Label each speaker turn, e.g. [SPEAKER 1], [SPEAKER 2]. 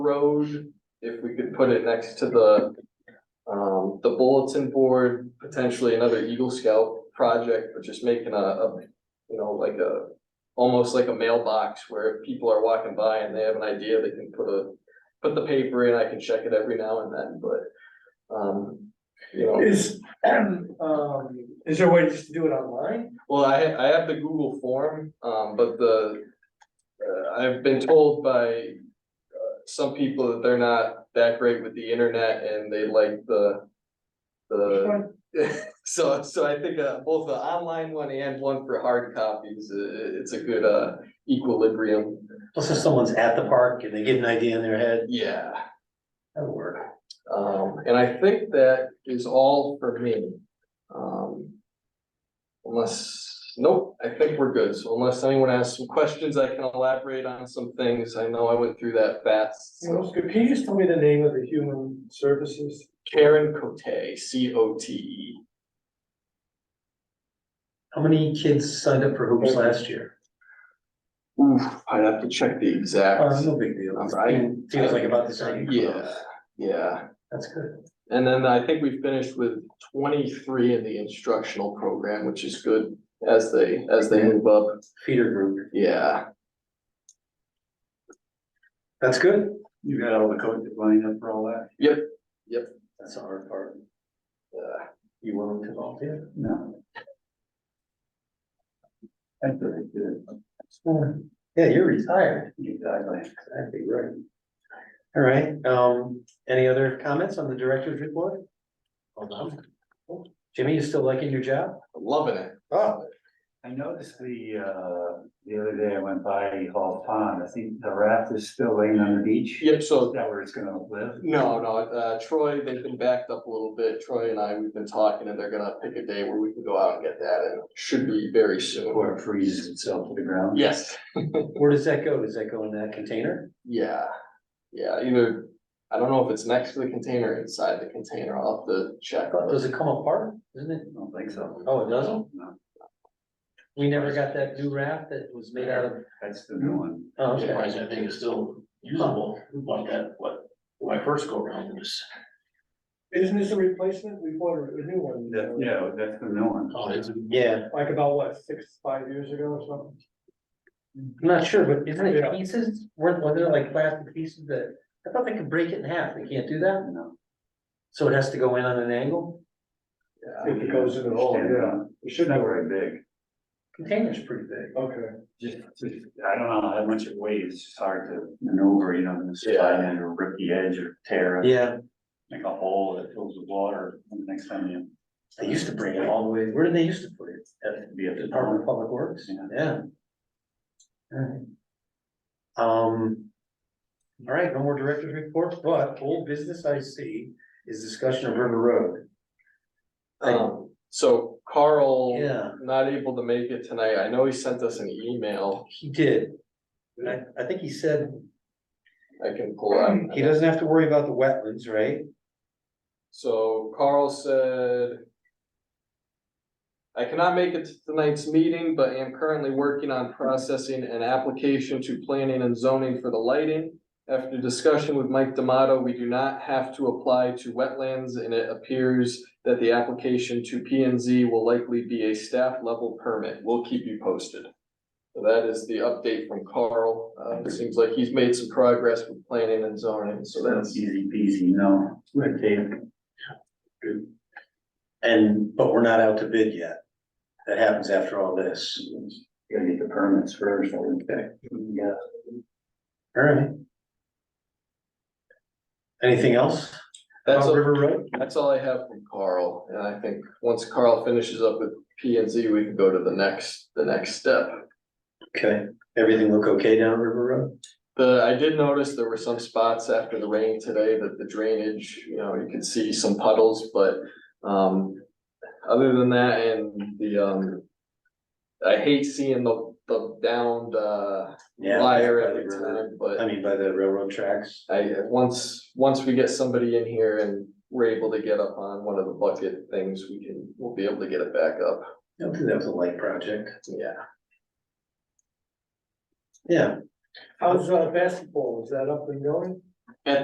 [SPEAKER 1] road, if we could put it next to the, um, the bulletin board, potentially another Eagle Scout project, but just making a, a, you know, like a, almost like a mailbox where if people are walking by and they have an idea, they can put a, put the paper in, I can check it every now and then, but, um, you know.
[SPEAKER 2] Is, um, is there a way just to do it online?
[SPEAKER 1] Well, I, ha- I have the Google form, um, but the, uh, I've been told by, uh, some people that they're not that great with the internet and they like the, the,
[SPEAKER 2] Uh,
[SPEAKER 1] so, so I think, uh, both the online one and one for hard copies, uh, it's a good, uh, equilibrium.
[SPEAKER 3] Plus if someone's at the park and they get an idea in their head,
[SPEAKER 1] Yeah,
[SPEAKER 3] that'll work.
[SPEAKER 1] um, and I think that is all for me. Um, Unless, nope, I think we're good. So unless anyone has some questions, I can elaborate on some things. I know I went through that fast.
[SPEAKER 2] What else could- Can you just tell me the name of the human services?
[SPEAKER 1] Karen Cote, C O T E.
[SPEAKER 3] How many kids signed up for hoops last year?
[SPEAKER 1] Oof, I'd have to check the
[SPEAKER 3] Uh,
[SPEAKER 1] exact.
[SPEAKER 3] no big deal.
[SPEAKER 1] I'm right.
[SPEAKER 3] Feels like about the same.
[SPEAKER 1] Yeah, yeah.
[SPEAKER 3] That's good.
[SPEAKER 1] And then I think we finished with twenty-three in the instructional program, which is good as they, as they move up.
[SPEAKER 3] Feeder group.
[SPEAKER 1] Yeah.
[SPEAKER 3] That's good.
[SPEAKER 4] You got all the coaches lined up for all that?
[SPEAKER 3] That's the hard part.
[SPEAKER 1] yeah.
[SPEAKER 3] You willing to volunteer?
[SPEAKER 4] No. That's very good.
[SPEAKER 3] Yeah, you're retired.
[SPEAKER 4] Exactly.
[SPEAKER 3] Exactly right. All right, um, any other comments on the director's report? Hold on. Jimmy, you still liking your job?
[SPEAKER 1] Loving it.
[SPEAKER 2] Ah.
[SPEAKER 3] Oh.
[SPEAKER 4] I noticed the, uh, the other day I went by Hall Pond, I think the raft is still laying on the beach.
[SPEAKER 1] Yep, so
[SPEAKER 4] Is that where it's gonna live?
[SPEAKER 1] No, no, uh, Troy, they've been backed up a little bit. Troy and I, we've been talking and they're gonna pick a day where we can go out and get that and should be very soon.
[SPEAKER 4] Or it freezes itself to the ground?
[SPEAKER 1] Yes,
[SPEAKER 3] Where does that go? Does that go in that container?
[SPEAKER 1] yeah, yeah, either, I don't know if it's next to the container, or inside the container, I'll have to check.
[SPEAKER 3] But Does it come apart? Isn't it?
[SPEAKER 4] I don't think so.
[SPEAKER 3] Oh, it doesn't?
[SPEAKER 4] No,
[SPEAKER 3] We never got that new raft that was made out of,
[SPEAKER 4] that's the new one.
[SPEAKER 3] oh, okay.
[SPEAKER 5] Surprised that thing is still usable like that, what, when I first go around was,
[SPEAKER 2] Isn't this a replacement? We bought a a new one.
[SPEAKER 4] That- yeah, that's the new one.
[SPEAKER 5] oh, it's,
[SPEAKER 3] Yeah,
[SPEAKER 2] Like about what, six, five years ago or something?
[SPEAKER 3] I'm not sure, but isn't
[SPEAKER 2] Yeah.
[SPEAKER 3] it pieces, weren't, were there like plastic pieces that, I thought they could break it in half, they can't do that?
[SPEAKER 4] No.
[SPEAKER 3] So it has to go in on an angle?
[SPEAKER 1] Yeah.
[SPEAKER 2] If it goes in at all,
[SPEAKER 4] Stand
[SPEAKER 2] yeah.
[SPEAKER 4] on.
[SPEAKER 2] It
[SPEAKER 4] It's
[SPEAKER 2] should
[SPEAKER 4] not
[SPEAKER 2] go
[SPEAKER 4] very big,
[SPEAKER 3] Container's pretty big.
[SPEAKER 2] Okay.
[SPEAKER 4] just, just, I don't know how much it weighs, it's hard to maneuver, you know, just
[SPEAKER 1] Yeah.
[SPEAKER 4] slide in or rip the edge or tear it.
[SPEAKER 3] Yeah,
[SPEAKER 4] make a hole that fills with water, and the next time you.
[SPEAKER 3] they used to bring it all the way, where did they used to put it? At
[SPEAKER 4] Be at
[SPEAKER 3] the
[SPEAKER 4] the
[SPEAKER 3] Department of
[SPEAKER 4] park.
[SPEAKER 3] Public Works?
[SPEAKER 4] Yeah.
[SPEAKER 3] Yeah. Alright. Um. Alright, no more director's reports, but old business I see is discussion of River Road.
[SPEAKER 1] Um, so Carl,
[SPEAKER 3] Yeah,
[SPEAKER 1] not able to make it tonight. I know he sent us an email.
[SPEAKER 3] he did. And I, I think he said
[SPEAKER 1] I can pull up.
[SPEAKER 3] He doesn't have to worry about the wetlands, right?
[SPEAKER 1] So Carl said. I cannot make it to tonight's meeting, but am currently working on processing an application to planning and zoning for the lighting. After discussion with Mike D'Amato, we do not have to apply to wetlands and it appears that the application to P and Z will likely be a staff level permit. We'll keep you posted. So That is the update from Carl. Uh, it seems like he's made some progress with planning and zoning, so that's.
[SPEAKER 4] Easy peasy, no, red tape.
[SPEAKER 3] And, but we're not out to bid yet. That happens after all this.
[SPEAKER 4] Gotta get the permits first, I would think. Yeah.
[SPEAKER 3] Alright. Anything else?
[SPEAKER 1] That's
[SPEAKER 3] about
[SPEAKER 1] a-
[SPEAKER 3] Oh, River Road?
[SPEAKER 1] That's all I have from Carl, and I think once Carl finishes up with P and Z, we can go to the next, the next step.
[SPEAKER 3] Okay, everything look okay down River Road?
[SPEAKER 1] The, I did notice there were some spots after the rain today that the drainage, you know, you could see some puddles, but, um, other than that and the, um, I hate seeing the, the downed, uh, wire every time,
[SPEAKER 3] I
[SPEAKER 1] but
[SPEAKER 3] mean, by the railroad tracks.
[SPEAKER 1] I, once, once we get somebody in here and we're able to get up on one of the bucket things, we can, we'll be able to get it back up,
[SPEAKER 3] Don't think that was a light project.
[SPEAKER 1] yeah.
[SPEAKER 3] Yeah,
[SPEAKER 2] How's uh, basketball? Is that up and going?